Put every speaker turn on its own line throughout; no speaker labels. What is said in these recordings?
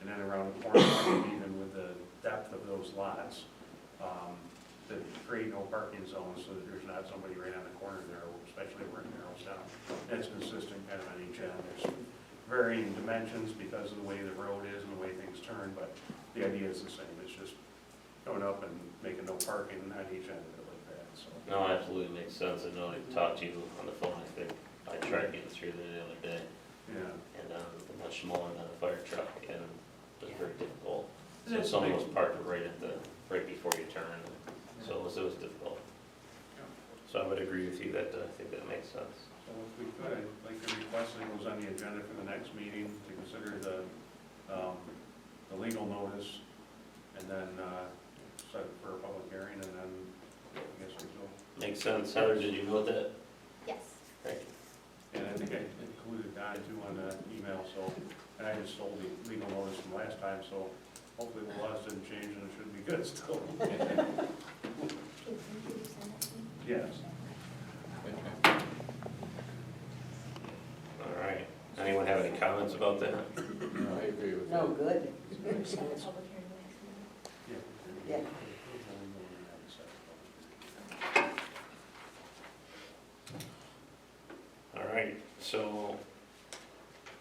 and then around the corner, even with the depth of those lots, um, to create no parking zones so that there's not somebody right on the corner there, especially where it narrows down. That's consistent kind of on each end. There's varying dimensions because of the way the road is and the way things turn, but the idea is the same. It's just going up and making no parking on each end of it like that, so.
No, absolutely makes sense. I know I talked to you on the phone, I think, I tried getting through there the other day,
Yeah.
and, um, it's much smaller than a fire truck, and it's very difficult. So
It's
someone
big.
was parked right at the, right before you turn, so it was, it was difficult. So I would agree with you that, uh, I think that makes sense.
So if we could, I'd like to request that it goes on the agenda for the next meeting to consider the, um, the legal notice and then, uh, set it for a public hearing and then, I guess, result.
Makes sense. Heather, did you go with that?
Yes.
Thank
And I think I included Don too on the email, so, and I just sold the legal notice from last time, so hopefully the laws didn't change and it should be good still.
Can you send that to me?
Yes.
you. All right. Anyone have any comments about that?
No, I agree with
No,
that.
good.
Should I have a public hearing next month?
Yeah.
All right, so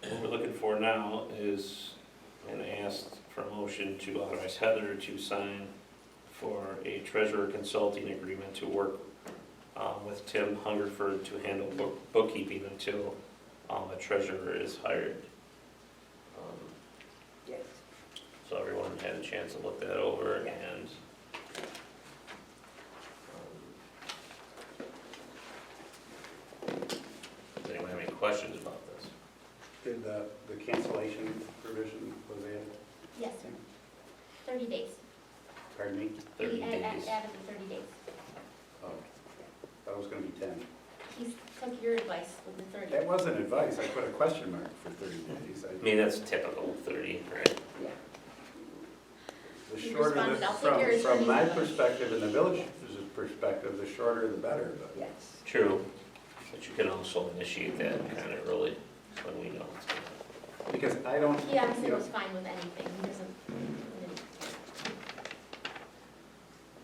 what we're looking for now is an ask for a motion to authorize Heather to sign for a treasurer consulting agreement to work um, with Tim Hungerford to handle book- bookkeeping until um, a treasurer is hired. Um,
Yes.
So everyone had a chance to look that over and. um, Does anyone have any questions about this?
Did the, the cancellation provision, was added?
Yes, sir. Thirty days.
pardon me,
Thirty
He added-
days.
Added the thirty days.
oh, that was gonna be ten.
He took your advice with the thirty.
That wasn't advice, I put a question mark for thirty days.
I
I-
mean, that's typical, thirty, right?
The
You
shorter,
responded,
the-
"I'll take your
from, from my
attorney's advice."
perspective and the village's perspective, the shorter the better, but
Yes.
True, but you can also initiate that kind of early when we know it's gonna.
because I don't,
He honestly
you know,
was fine with anything. He doesn't,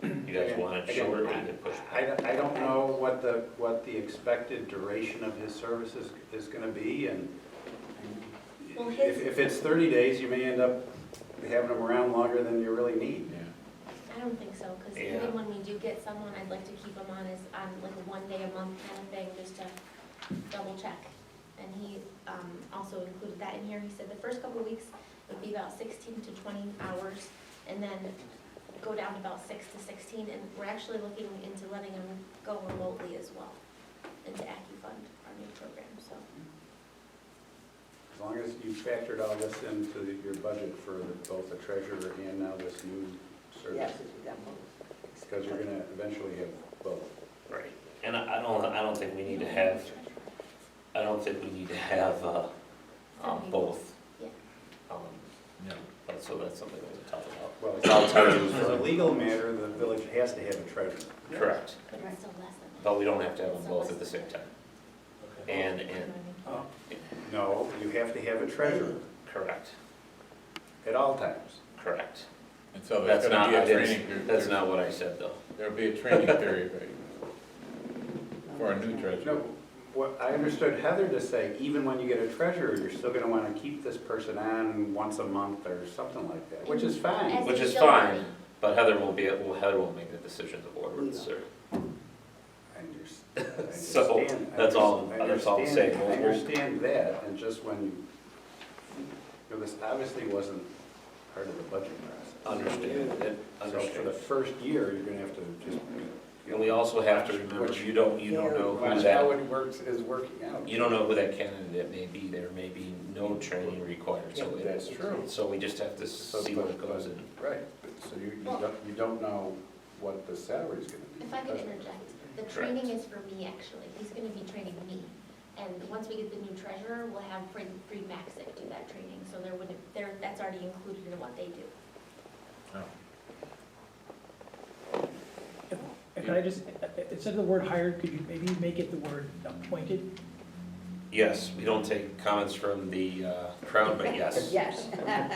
he didn't-
You guys
Again-
want it
again,
shorter, we can push
I,
back.
don't- I don't know what the, what the expected duration of his services is gonna be, and
Well, his-
if, if it's thirty days, you may end up having him around longer than you really need.
Yeah.
I don't think so, because
Yeah.
even when we do get someone, I'd like to keep them on as, on like a one day a month kind of thing, just to double check. And he, um, also included that in here, he said the first couple of weeks would be about sixteen to twenty hours, and then go down to about six to sixteen, and we're actually looking into letting him go remotely as well, into AccuFund, our new program, so.
As long as you factored all this into the- your budget for the- both the treasurer and now this new
Yes,
service.
it's got both.
Because you're gonna eventually have both.
Right, and I I don't, I don't think we need to have, I don't think we need to have, uh, um, both.
Yeah.
Um,
No.
but so that's something that we talk about.
Well,
I'll tell you.
As a legal matter, the village has to have a treasurer.
Correct,
But it's still less than that.
but we don't have to have them both at the same time. And,
You know
and,
what I mean?
No, you have to have a treasurer
correct,
at all times.
correct.
And so
That's
there's
not,
gonna be
I
a
didn't-
training period.
that's not what I said though.
There'll be a training period for a new treasurer.
No, what, I understood Heather to say, even when you get a treasurer, you're still gonna wanna keep this person on once a month or something like that, which is
As
fine.
Which
they
is
go on.
fine, but Heather will be, well, Heather will make the decision the board would serve.
I under- I
So,
understand- I
that's all-
understand-
that's all I'm saying.
I understand that, and just when you, you know, this obviously wasn't part of the budget process.
Understand, it,
So for the
understand.
first year, you're gonna have to just.
And we also have to remember, you don't, you don't know who
Watch
that
how it works, is working out.
You don't know who that candidate may be, there may be no training required, so
Yeah,
it,
That's true.
so we just have to see what it goes in.
Right, so you, you don't, you don't know what the salary's gonna be.
If I could
That's-
interject, the training is for me, actually. He's gonna be training me. And once we get the new treasurer, we'll have Fred, Fred Maxick do that training, so there wouldn't, there, that's already included in what they do.
Can I just, instead of the word hired, could you maybe make it the word appointed?
Yes, we don't take comments from the uh, crowd, but yes.
Yes.